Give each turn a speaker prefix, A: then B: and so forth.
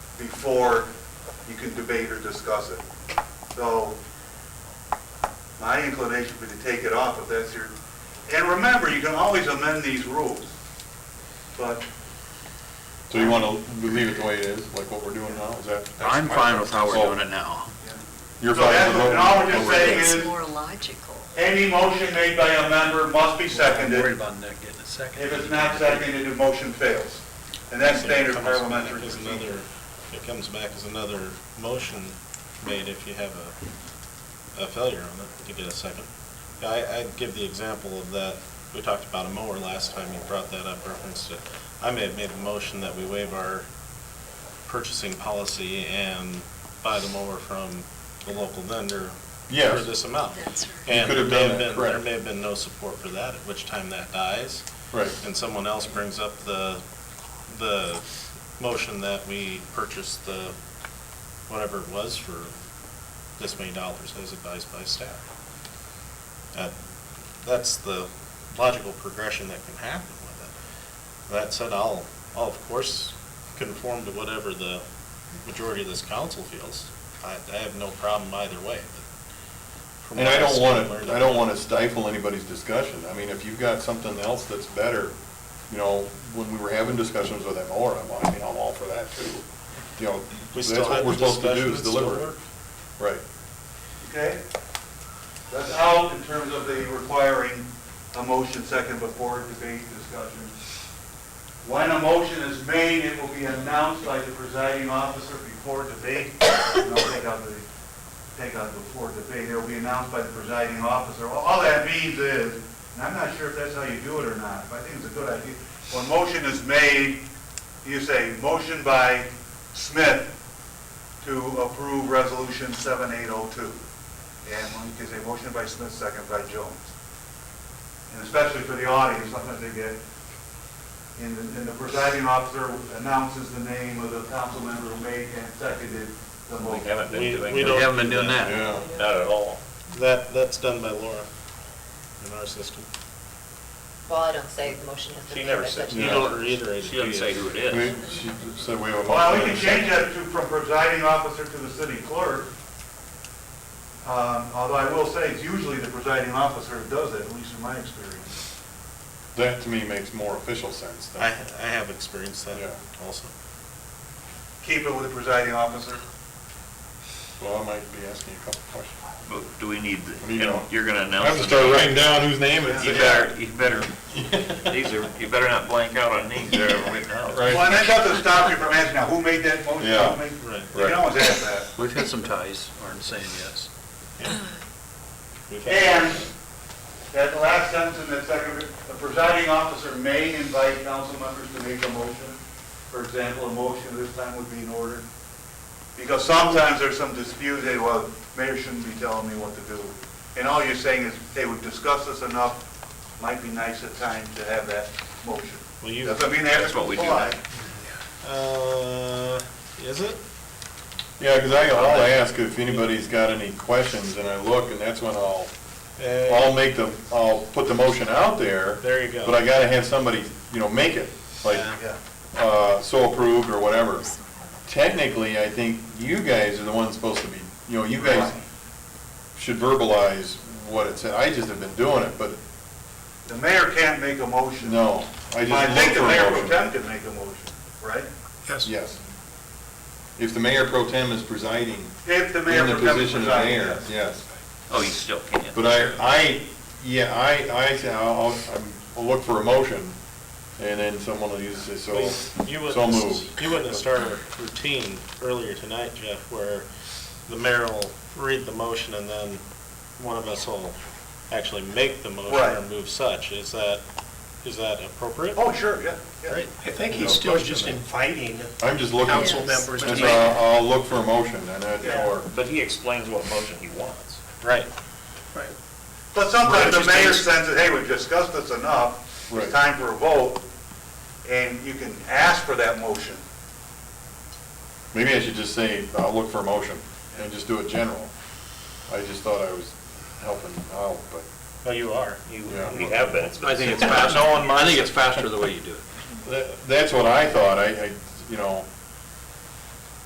A: before you can debate or discuss it. So my inclination would be to take it off if that's your, and remember, you can always amend these rules. But
B: So you want to leave it the way it is, like what we're doing now, is that? that's
C: I'm fine with how we're
B: So
C: doing it now.
B: You're
A: So that's
B: fine with
A: what- and all we're
B: what
A: just
B: we're doing?
A: saying
D: It's
A: is-
D: more logical.
A: any motion made by a member must be
E: I'm worried
A: seconded.
E: about not getting a second.
A: If it's not seconded, the motion fails. And that's standard
F: It comes back
A: parliamentary
F: as
A: procedure.
F: another- It comes back as another motion made if you have a, a failure on it, to get a second. Yeah, I, I'd give the example of that, we talked about a mower last time, you brought that up, referenced it. I may have made the motion that we waive our purchasing policy and buy the mower from the local vendor
B: Yes.
F: for this amount.
D: That's right.
F: And
B: could
F: there
B: have
F: may
B: done
F: have
B: that,
F: been, there
B: correct.
F: may have been no support for that, at which time that dies
B: Right,
F: and someone else brings up the, the motion that we purchase the, whatever it was for this many dollars as advised by staff. That, that's the logical progression that can happen with it. That said, I'll, I'll of course conform to whatever the majority of this council feels. I, I have no problem either way. but from
B: and I
F: what
B: don't
F: see
B: want
F: and learn
B: to, I don't want to stifle anybody's discussion, I mean, if you've got something else that's better, you know, when we were having discussions with them, or, I'm, I mean, I'm all for that too. You know,
F: We
B: that's
F: still
B: what
F: have
B: we're
F: the
B: supposed to
F: discussion,
B: do
F: it
B: is
F: still
B: deliver it.
F: works.
B: Right,
A: Okay? That's out in terms of the requiring a motion second before debate discussion. When a motion is made, it will be announced by the presiding officer before debate. And I'll take out the, take out before debate. It will be announced by the presiding officer. All- All that means is, and I'm not sure if that's how you do it or not, but I think it's a good idea. When motion is made, you say, motion by Smith to approve Resolution 7802. And when you can say motion by Smith, second by Jones. And especially for the audience, sometimes they get, and the- and the presiding officer announces the name of the council member who made and seconded the
G: We
A: motion.
G: haven't been doing
F: We
C: We
F: don't
C: haven't been
F: do
C: doing
F: that.
C: that.
B: yeah,
G: Not at all.
F: That, that's done by Laura in our system.
H: Well, I don't say the motion has been
G: She
H: made.
G: never
H: by
G: said
H: such-
F: You
B: Yeah.
F: don't reiterate it.
C: She doesn't
F: do
C: say
F: you?
C: who it
B: I
C: is.
B: mean, she said we have a.
A: Well, we can change that to from presiding officer to the city clerk. Um, Although I will say, it's usually the presiding officer who does that, at least in my experience.
B: That to me makes more official sense
F: I, I
B: than,
F: have experienced that
B: Yeah.
F: also.
A: Keep it with the presiding officer.
B: well, I might be asking a couple questions.
C: But do we need, the-
B: What do you know?
C: you're gonna
B: I have
C: announce.
B: to
C: the
B: start
C: name.
B: writing down whose name it's.
C: You better, you better, these are, you better not blank out on names there right now.
B: Right.
A: Well, and that doesn't stop you from asking, now, who made that motion? Who
B: Yeah.
A: made-
F: Right.
A: You can always ask that.
E: We've had some ties, aren't saying yes.
F: We've had-
A: And that last sentence in that second, the presiding officer may invite council members to make a motion. For example, a motion this time would be in order. Because sometimes there's some dispute, hey, well, mayor shouldn't be telling me what to do. And all you're saying is, hey, we've discussed this enough, might be nice at times to have that motion.
F: Well, you,
A: Doesn't mean they have
C: That's
A: to
C: what we do.
A: comply.
F: uh, is it?
B: Yeah, because I, I'll ask if anybody's got any questions, and I look, and that's when I'll, I'll
F: Uh,
B: make the, I'll put the motion out there,
F: There you go.
B: but I gotta have somebody, you know, make it, like,
F: Yeah.
A: Yeah.
B: uh, so approved or whatever. Technically, I think you guys are the ones supposed to be, you know, you guys should verbalize what it said. I just have been doing it, but
A: The mayor can't make a motion.
B: no, I
A: I think
B: just look
A: the
B: for
A: mayor
B: a
A: pro
B: motion.
A: tem can make a motion, right?
B: Yes. If the mayor pro tem is presiding
A: If the mayor
B: in the
A: pro tem
B: position of
A: presides, yes.
B: mayor, yes.
C: Oh, you still can't.
B: But I, I, yeah, I, I, say I'll, I'm- I'll look for a motion, and then someone will use it, so,
F: Well, You
B: so
F: witnessed,
B: moved.
F: you witnessed started routine earlier tonight, Jeff, where the mayor will read the motion and then one of us will actually make the motion or
A: Right.
F: move such. Is that, is that appropriate?
A: Oh, sure, yeah, yeah.
F: Great.
E: I think
B: No
E: he's still
B: question
E: just
B: there.
E: inviting
B: I'm just looking.
E: council
H: Yes.
E: members to
B: That's,
E: make.
B: uh, I'll look for a motion, and
A: Yeah.
B: that, or,
G: But he explains what motion he wants.
F: Right.
E: Right.
A: But sometimes the
E: Right.
A: mayor sends it, hey, we've discussed this enough,
B: Right.
A: it's time for a vote, and you can ask for that motion.
B: maybe I should just say, I'll look for a motion, and just do it general. I just thought I was helping out, but,
F: Well, you are.
G: Oh, You,
B: Yeah.
G: we have been.
E: I think it's faster, I think it's faster the way you do it.
B: that, that's what I thought, I, I, you know,